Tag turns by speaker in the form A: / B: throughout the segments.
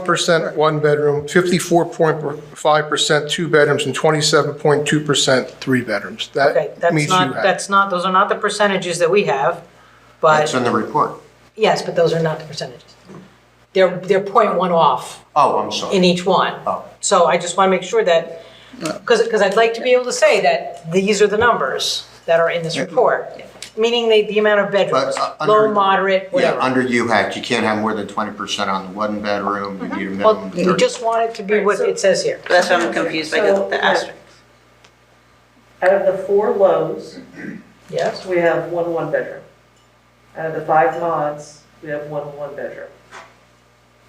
A: 1% one-bedroom, 54.5% two-bedrooms, and 27.2% three-bedrooms.
B: Okay,
A: That
B: that's
A: means you
B: not,
A: have.
B: that's not, those are not the percentages that we have, but,
C: That's in the report.
B: yes, but those are not the percentages. They're, they're point one off
C: Oh, I'm
B: in
C: sorry.
B: each one.
C: Oh.
B: So I just want to make sure that, because, because I'd like to be able to say that these are the numbers that are in this report, meaning the, the amount of bedrooms,
C: But, uh,
B: low,
C: under-
B: moderate,
C: Yeah,
B: whatever.
C: under UHAC, you can't have more than twenty percent on the one bedroom, you need a minimum
B: Well,
C: of
B: you
C: thirty.
B: just want it to be what it says here.
D: That's why I'm confused by the, the asterisk.
E: Out of the four lows,
B: Yes,
E: we have one one-bedroom. Out of the five mods, we have one one-bedroom.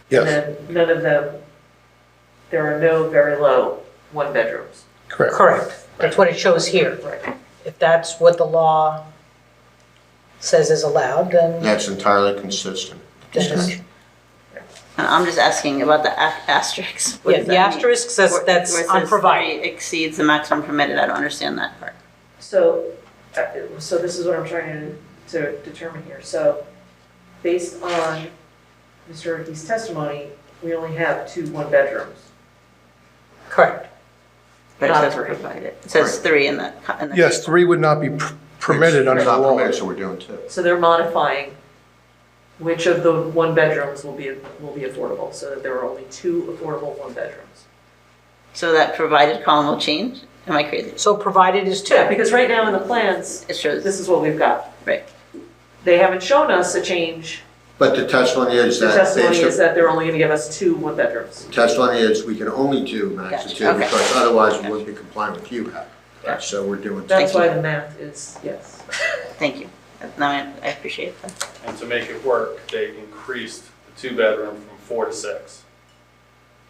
A: Yes,
E: And then none of them, there are no very low one-bedrooms.
A: correct.
B: correct. That's what it shows here.
E: Right.
B: If that's what the law says is allowed, then
C: That's entirely consistent.
B: then it's
D: And I'm just asking about the a- asterisks. What
B: Yeah,
D: does
B: the
D: that mean?
B: asterisk says
D: Where-
B: that's
D: where it says
B: unprovided.
D: three Exceeds the maximum permitted, I don't understand that part.
E: So, uh, so this is what I'm trying to, to determine here. So based on Mr. Ricky's testimony, we only have two one-bedrooms.
B: Correct.
D: But it
E: Not
D: says
E: three.
D: provided, it says three in the. co- in the-
A: Yes, three would not be pr- permitted under
C: It's
A: the
C: not
A: law.
C: permitted, so we're doing two.
E: So they're modifying which of the one-bedrooms will be, will be affordable, so that there are only two affordable one-bedrooms.
D: So that provided column will change? Am I crazy?
B: So provided is
E: Yeah,
B: two.
E: because right now in the plans,
D: It shows,
E: this is what we've got.
D: right,
E: They haven't shown us a change.
C: But the testimony is
E: The
C: that,
E: testimony is
C: based
E: that they're only gonna give us two one-bedrooms.
C: on- testimony is we can only do max of
D: Gotcha,
C: two,
D: okay.
C: because otherwise we wouldn't be compliant with UHAC.
D: Gotcha.
C: So we're doing two.
E: That's
D: Thank you.
E: why the math is, yes.
D: thank you. Now I I appreciate that.
F: And to make it work, they increased the two-bedroom from four to six.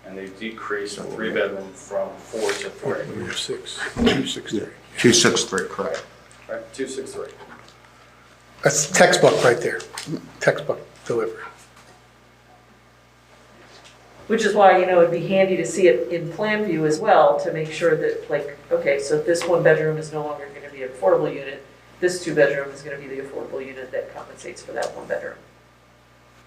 F: And they decreased the three-bedroom from four to three,
A: Number Six, two, six, three.
C: Two, six, three, correct.
F: right, two, six, three.
A: That's textbook right there, textbook delivery.
E: Which is why, you know, it'd be handy to see it in plan view as well, to make sure that, like, okay, so this one-bedroom is no longer gonna be an affordable unit. This two-bedroom is gonna be the affordable unit that compensates for that one-bedroom.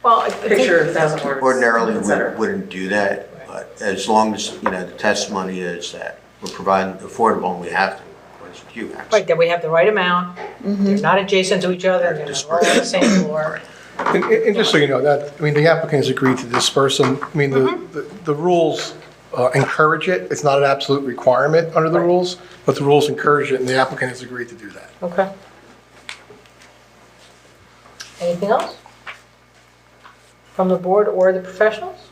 B: Well, I think-
E: Picture, a thousand words,
C: Ordinarily,
E: et
C: we
E: cetera.
C: wouldn't do that, but as long as, you know, the testimony is that we're providing affordable and we have to, according to UHAC.
B: Right, that we have the right amount, they're not adjacent to each other, they're not all on the same floor.
A: And, and and just so you know, that, I mean, the applicant has agreed to disperse them. I mean, the,
B: Mm-hmm.
A: the- the rules uh, encourage it. It's not an absolute requirement under the rules, but the rules encourage it, and the applicant has agreed to do that.
B: Okay. Anything else? From the board or the professionals?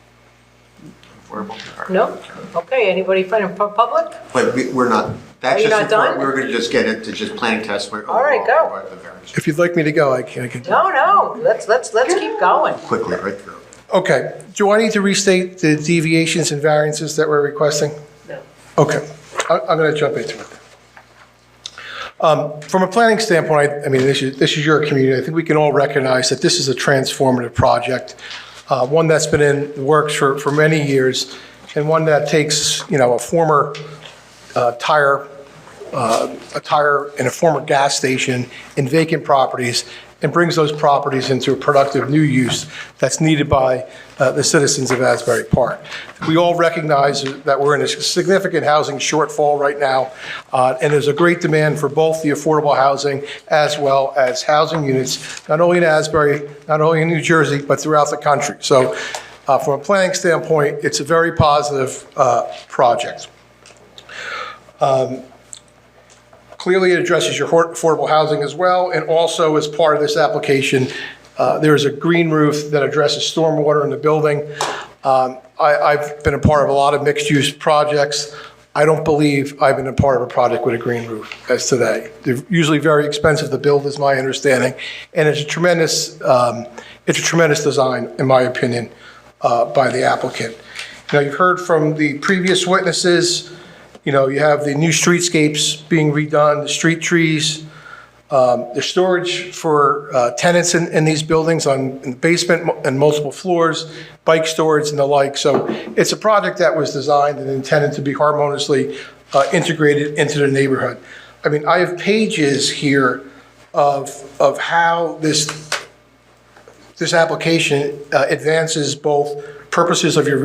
C: Affordable.
B: No? Okay, anybody from the pu- public?
C: But we- we're not,
B: Are
C: that's
B: you
C: just,
B: not
C: the part-
B: done?
C: we were gonna just get into just planning testimony.
B: All right,
C: overall,
B: go.
C: about the variance.
A: If you'd like me to go, I can, I can.
B: No, no, let's, let's, let's keep going.
C: Quickly, right through.
A: Okay, do I need to restate the deviations and variances that we're requesting?
E: No.
A: Okay, I- I'm going to jump into it. Um, From a planning standpoint, I- I mean, this is, this is your community. I think we can all recognize that this is a transformative project, uh, one that's been in the works for, for many years, and one that takes, you know, a former uh, tire a tire in a former gas station in vacant properties and brings those properties into a productive new use that's needed by uh, the citizens of Asbury Park. We all recognize that we're in a significant housing shortfall right now, uh, and there's a great demand for both the affordable housing as well as housing units, not only in Asbury, not only in New Jersey, but throughout the country. So uh, from a planning standpoint, it's a very positive uh, project. Clearly, it addresses your hor- affordable housing as well, and also as part of this application, uh, there is a green roof that addresses stormwater in the building. Um, I- I've been a part of a lot of mixed-use projects. I don't believe I've been a part of a project with a green roof as today. They're usually very expensive to build, is my understanding, and it's a tremendous, um, it's a tremendous design, in my opinion, uh, by the applicant. Now, you've heard from the previous witnesses, you know, you have the new streetscapes being redone, the street trees, um, the storage for uh, tenants in, in these buildings on, in the basement and multiple floors, bike storage and the like. So it's a project that was designed and intended to be harmoniously uh, integrated into the neighborhood. I mean, I have pages here of, of how this this application uh, advances both purposes of your